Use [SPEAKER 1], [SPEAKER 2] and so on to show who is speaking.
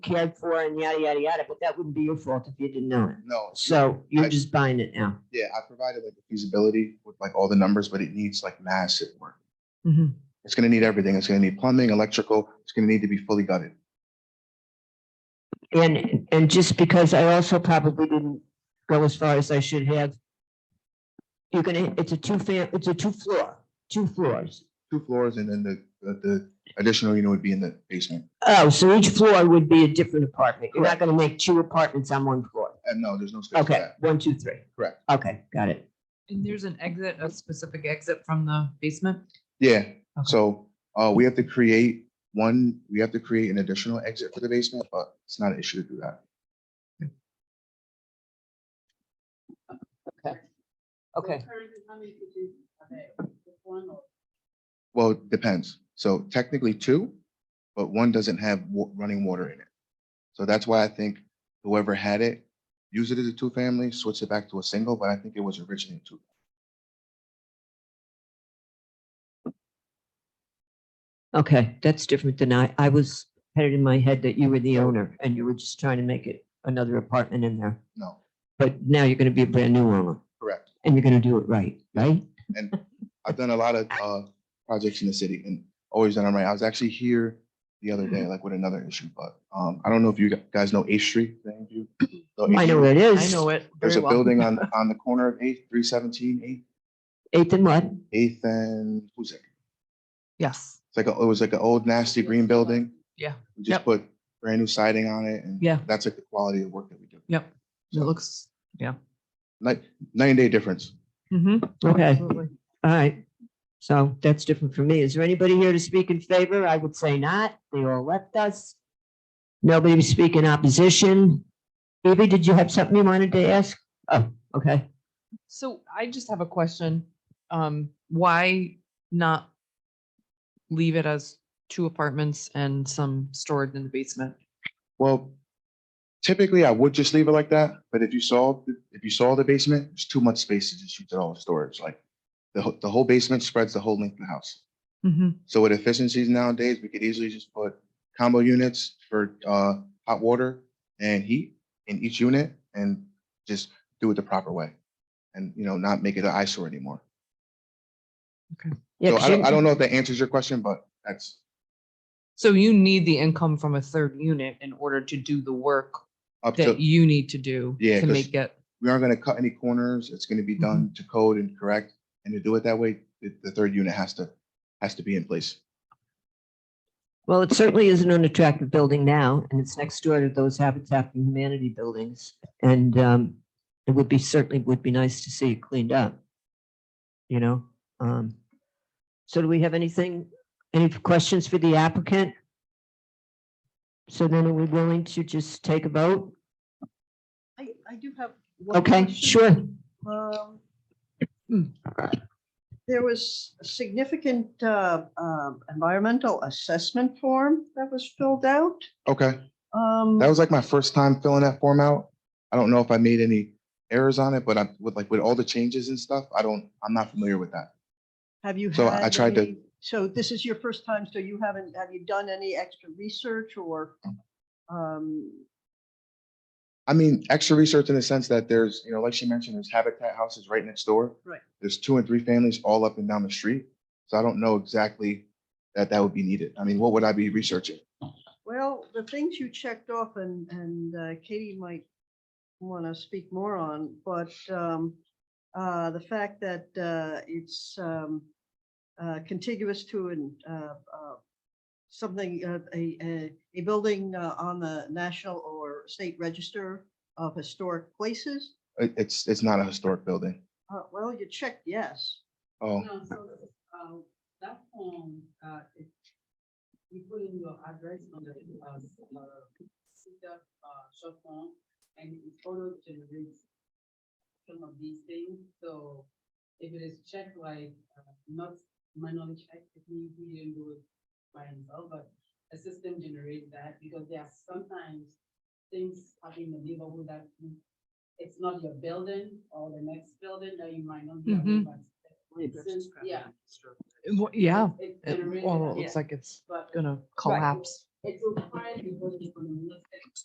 [SPEAKER 1] cared for and yada, yada, yada, but that wouldn't be your fault if you didn't know it.
[SPEAKER 2] No, so
[SPEAKER 1] So you're just buying it now.
[SPEAKER 2] yeah, I provided like the feasibility with like all the numbers, but it needs like massive work.
[SPEAKER 1] Mhm.
[SPEAKER 2] It's gonna need everything. It's gonna need plumbing, electrical. It's gonna need to be fully gutted.
[SPEAKER 1] And, and just because I also probably didn't go as far as I should have. You're gonna, it's a two fam, it's a two floor, two floors.
[SPEAKER 2] Two floors and then the, the- the additional, you know, would be in the basement.
[SPEAKER 1] Oh, so each floor would be a different apartment. You're not
[SPEAKER 2] Correct.
[SPEAKER 1] gonna make two apartments on one floor.
[SPEAKER 2] And no, there's no space for
[SPEAKER 1] Okay,
[SPEAKER 2] that.
[SPEAKER 1] one, two, three.
[SPEAKER 2] Correct.
[SPEAKER 1] Okay, got it.
[SPEAKER 3] And there's an exit, a specific exit from the basement?
[SPEAKER 2] Yeah, so, uh, we have to create one, we have to create an additional exit for the basement, but it's not an issue to do that.
[SPEAKER 1] Okay.
[SPEAKER 2] Well, it depends. So technically two, but one doesn't have wa- running water in it. So that's why I think whoever had it, use it as a two-family, switch it back to a single, but I think it was originally two.
[SPEAKER 1] Okay, that's different than I, I was had it in my head that you were the owner and you were just trying to make it another apartment in there.
[SPEAKER 2] No,
[SPEAKER 1] But now you're gonna be a brand new owner
[SPEAKER 2] correct.
[SPEAKER 1] and you're gonna do it right, right?
[SPEAKER 2] And I've done a lot of uh projects in the city and always done them right. I was actually here the other
[SPEAKER 1] Mm-hmm.
[SPEAKER 2] day, like with another issue, but um, I don't know if you gu- guys know Eighth Street. if any of you know Eighth
[SPEAKER 1] I know
[SPEAKER 2] Street.
[SPEAKER 1] where it
[SPEAKER 3] I
[SPEAKER 1] is.
[SPEAKER 3] know it.
[SPEAKER 2] There's
[SPEAKER 3] very
[SPEAKER 2] a
[SPEAKER 3] well.
[SPEAKER 2] building on, on the corner of Eighth, three seventeen, Eighth,
[SPEAKER 1] Eighth and what?
[SPEAKER 2] Eighth and Huzik.
[SPEAKER 3] Yes,
[SPEAKER 2] It's like, a- it was like an old nasty green building.
[SPEAKER 3] Yeah.
[SPEAKER 2] We
[SPEAKER 3] Yep.
[SPEAKER 2] just put brand new siding on it and
[SPEAKER 3] Yeah.
[SPEAKER 2] that's like the quality of work that we do.
[SPEAKER 3] yep. It looks,
[SPEAKER 2] Like nine day difference.
[SPEAKER 3] mm-hmm.
[SPEAKER 1] Okay, all right. So that's different for me. Is there anybody here to speak in favor? I would say not. They all left us. Nobody to speak in opposition. Evie, did you have something you wanted to ask? Oh, okay.
[SPEAKER 3] So I just have a question. Um, why not leave it as two apartments and some stored in the basement?
[SPEAKER 2] Well, typically I would just leave it like that, but if you saw, if you saw the basement, there's too much space to just use it all as storage, like the, whole- the whole basement spreads the whole length of the house.
[SPEAKER 3] Mhm.
[SPEAKER 2] So with efficiencies nowadays, we could easily just put combo units for uh hot water and heat in each unit and just do it the proper way. And, you know, not make it an eyesore anymore.
[SPEAKER 1] Yeah,
[SPEAKER 2] So
[SPEAKER 1] 'cause
[SPEAKER 2] I don't,
[SPEAKER 1] you-
[SPEAKER 2] I don't know if that answers your question, but that's,
[SPEAKER 3] So you need the income from a third unit in order to do the work
[SPEAKER 2] Up
[SPEAKER 3] that
[SPEAKER 2] to-
[SPEAKER 3] you need to do
[SPEAKER 2] Yeah,
[SPEAKER 3] to
[SPEAKER 2] 'cause-
[SPEAKER 3] make it.
[SPEAKER 2] we aren't gonna cut any corners. It's gonna
[SPEAKER 1] Mm-hmm.
[SPEAKER 2] be done to code and correct. And to do it that way, the, the third unit has to, has to be in place.
[SPEAKER 1] Well, it certainly is an unattractive building now, and it's next door to those Habitat for Humanity buildings. And um, it would be, certainly would be nice to see it cleaned up. You know? um, So do we have anything, any questions for the applicant? So then are we willing to just take a vote?
[SPEAKER 4] I, I do have. one
[SPEAKER 1] Okay,
[SPEAKER 4] question.
[SPEAKER 1] sure.
[SPEAKER 4] Um,
[SPEAKER 2] Hmm.
[SPEAKER 4] There was a significant uh, um, environmental assessment form that was filled out.
[SPEAKER 2] Okay,
[SPEAKER 4] Um,
[SPEAKER 2] that was like my first time filling that form out. I don't know if I made any errors on it, but I, with like, with all the changes and stuff, I don't, I'm not familiar with that.
[SPEAKER 4] Have you?
[SPEAKER 2] so I
[SPEAKER 4] had
[SPEAKER 2] tried to-
[SPEAKER 4] any- So this is your first time, so you haven't, have you done any extra research or? um,
[SPEAKER 2] I mean, extra research in the sense that there's, you know, like she mentioned, there's habitat houses right next door.
[SPEAKER 4] Right.
[SPEAKER 2] There's two and three families all up and down the street. So I don't know exactly that that would be needed. I mean, what would I be researching?
[SPEAKER 4] Well, the things you checked off and, and uh, Katie might want to speak more on, but um, uh, the fact that uh, it's um, uh, contiguous to an, uh, uh, something, uh, a, a, a building uh, on the national or state register of historic places.
[SPEAKER 2] It- it's, it's not a historic building.
[SPEAKER 4] Uh, Well, you checked yes.
[SPEAKER 2] Oh,
[SPEAKER 5] No, so, uh, that form, uh, it, you put in your address on the, uh, CEDAR, uh, short form, and it auto generates some of these things, so if it is checked like, uh, not manually checked, if we, we didn't do it by himself, but a system generates that, because there are sometimes things happen in the neighborhood that you- it's not your building or the next building that you might not be aware,
[SPEAKER 3] Mhm.
[SPEAKER 5] but since- Yeah.
[SPEAKER 3] Wha- Yeah,
[SPEAKER 5] It- it
[SPEAKER 3] it-
[SPEAKER 5] generated
[SPEAKER 3] well, it
[SPEAKER 5] that,
[SPEAKER 3] looks like it's
[SPEAKER 5] but-
[SPEAKER 3] gonna collapse.
[SPEAKER 5] It will find the voting from the next